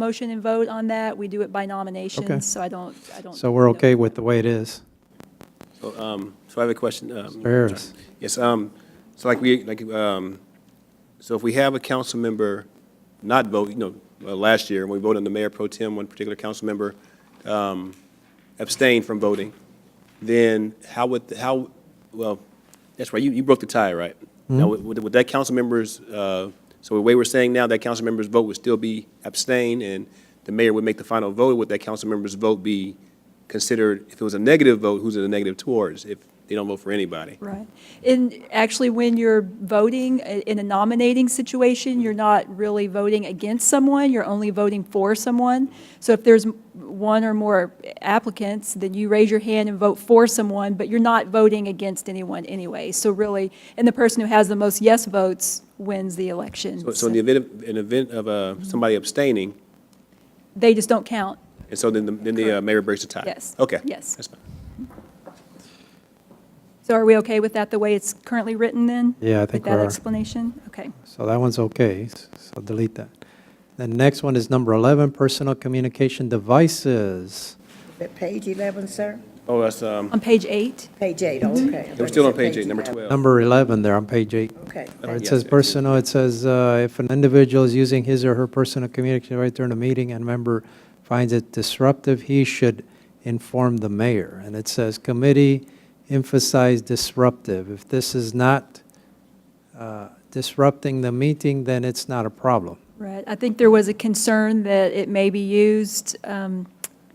motion and vote on that. We do it by nominations, so I don't, I don't. So we're okay with the way it is. So I have a question. um, Mr. Harris. Yes, um, so like we, like, um, so if we have a council member not vote, you know, uh, last year, when we voted on the mayor pro tem, one particular council member um, abstained from voting, then how would, how, well, that's right, you, you broke the tie, right? Now, would, would that council member's, uh, so the way we're saying now, that council member's vote would still be abstained, and the mayor would make the final vote, would that council member's vote be considered, if it was a negative vote, who's it a negative towards, if they don't vote for anybody? Right. And actually, when you're voting i- in a nominating situation, you're not really voting against someone, you're only voting for someone. So if there's m- one or more applicants, then you raise your hand and vote for someone, but you're not voting against anyone anyway. So really, and the person who has the most yes votes wins the election. So- So in the event, of- an event of uh, somebody abstaining, They just don't count. and so then the, then the uh, mayor breaks the tie? Yes. Okay. Yes. That's fine. So are we okay with that, the way it's currently written then? Yeah, I think we With are. that explanation? Okay. So that one's okay, s- so delete that. The next one is number 11, personal communication devices. At Page 11, sir? Oh, that's, um, On page eight? Page 8, okay. we're still on page eight, number 12. Number 11 there on page eight. Okay. Where it Yes, says yes, yes. personal, it says, uh, if an individual is using his or her personal communication right during a meeting and member finds it disruptive, he should inform the mayor. And it says, committee emphasize disruptive. If this is not uh, disrupting the meeting, then it's not a problem. Right, I think there was a concern that it may be used um,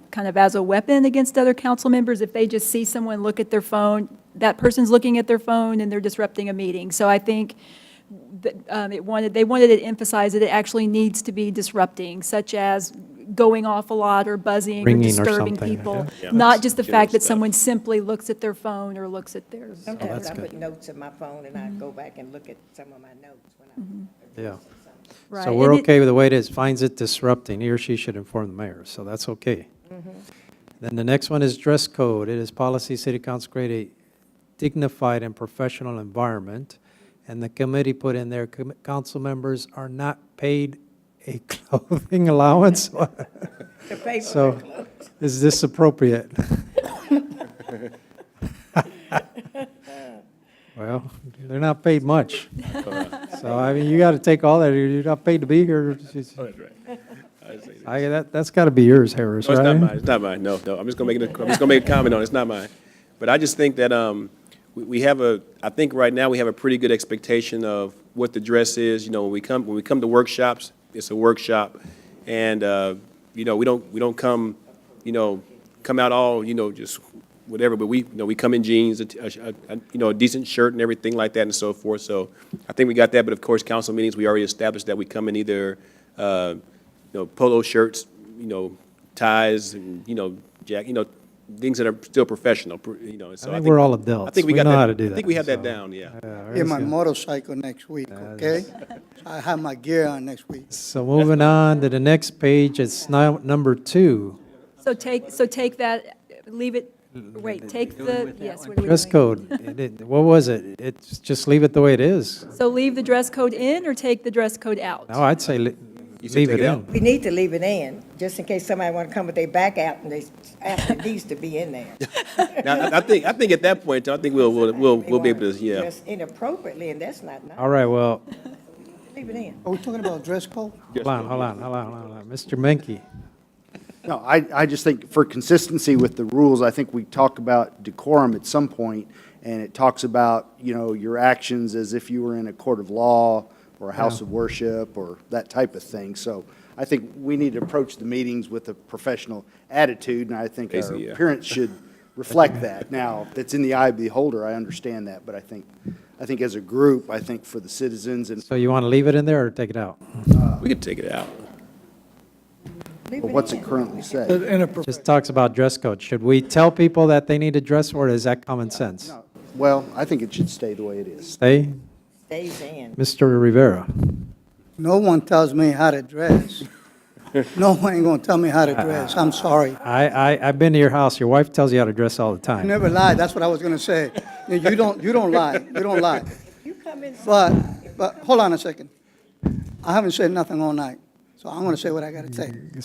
kind of as a weapon against other council members. If they just see someone look at their phone, that person's looking at their phone and they're disrupting a meeting. So I think that um, it wanted, they wanted to emphasize that it actually needs to be disrupting, such as going off a lot or buzzing or Ringing or disturbing something, people. yeah. Yeah. Not just the fact that General stuff. someone simply looks at their phone or looks at their. Oh, Sometimes that's I good. put notes in my phone and I go back and look at some of my notes when I'm Yeah. Right, So and we're it- okay with the way it is, finds it disrupting, he or she should inform the mayor, so that's okay. Mm-hmm. Then the next one is dress code. It is policy, city council create a dignified and professional environment. And the committee put in there, "Com- council members are not paid a clothing allowance. The paper So is this appropriate? Well, they're not paid much. So, I mean, you got to take all that, you're not paid to be here. That's right. I see. I, that, that's got to be yours, Harris, No, right? it's not mine, it's not mine, no, no, I'm just gonna make it, a- I'm just gonna make a comment on it, it's not mine. But I just think that, um, we, we have a, I think right now we have a pretty good expectation of what the dress is, you know, when we come, when we come to workshops, it's a workshop. And, uh, you know, we don't, we don't come, you know, come out all, you know, just whatever, but we, you know, we come in jeans, a t- a- a- a- you know, a decent shirt and everything like that and so forth, so I think we got that, but of course, council meetings, we already established that we come in either, uh, you know, polo shirts, you know, ties and, you know, jack, you know, things that are still professional, pr- you know, and so I I think think. we're all adults. I think we We got know that- how to do I think we that, have so. that down, yeah. Yeah, my motorcycle next week, okay? I have my gear on next week. So moving on to the next page, it's now number two, So take, so take that, leave it, wait, take the, yes, what are we dress doing? code. It- it- What was it? It's, just leave it the way it is. So leave the dress code in or take the dress code out? No, I'd say li- You should leave take it it out. in. We need to leave it in, just in case somebody want to come with their back out and they, ask it needs to be in there. Now, I I think, I think at that point, I think we'll, we'll, we'll They we'll be wanna able to, yeah. dress Inappropriately, and that's not, nice. All right, well, leave it in. Are we talking about dress code? hold on, hold on, hold on, hold on. Mr. Menke, No, I, I just think for consistency with the rules, I think we talk about decorum at some point, and it talks about, you know, your actions as if you were in a court of law or a house of worship or that type of thing. So I think we need to approach the meetings with a professional attitude, and I think our Basically, yeah. appearance should reflect that. Now, that's in the eye of the beholder, I understand that, but I think, I think as a group, I think for the citizens and so you want to leave it in there or take it out? We could take it out. Leave for it what's in. it currently say. Just talks about dress code. Should we tell people that they need to dress or is that common sense? Well, I think it should stay the way it is. Stay, Stays in. Mr. Rivera. No one tells me how to dress. No one ain't gonna tell me how to dress, I'm sorry. I, I, I've been to your house. Your wife tells you how to dress all the You time. never lie, that's what I was gonna say. You you don't, you don't lie, you don't lie. You come in, But, but, hold on a second. I haven't said nothing all night, So I'm gonna say what I gotta say.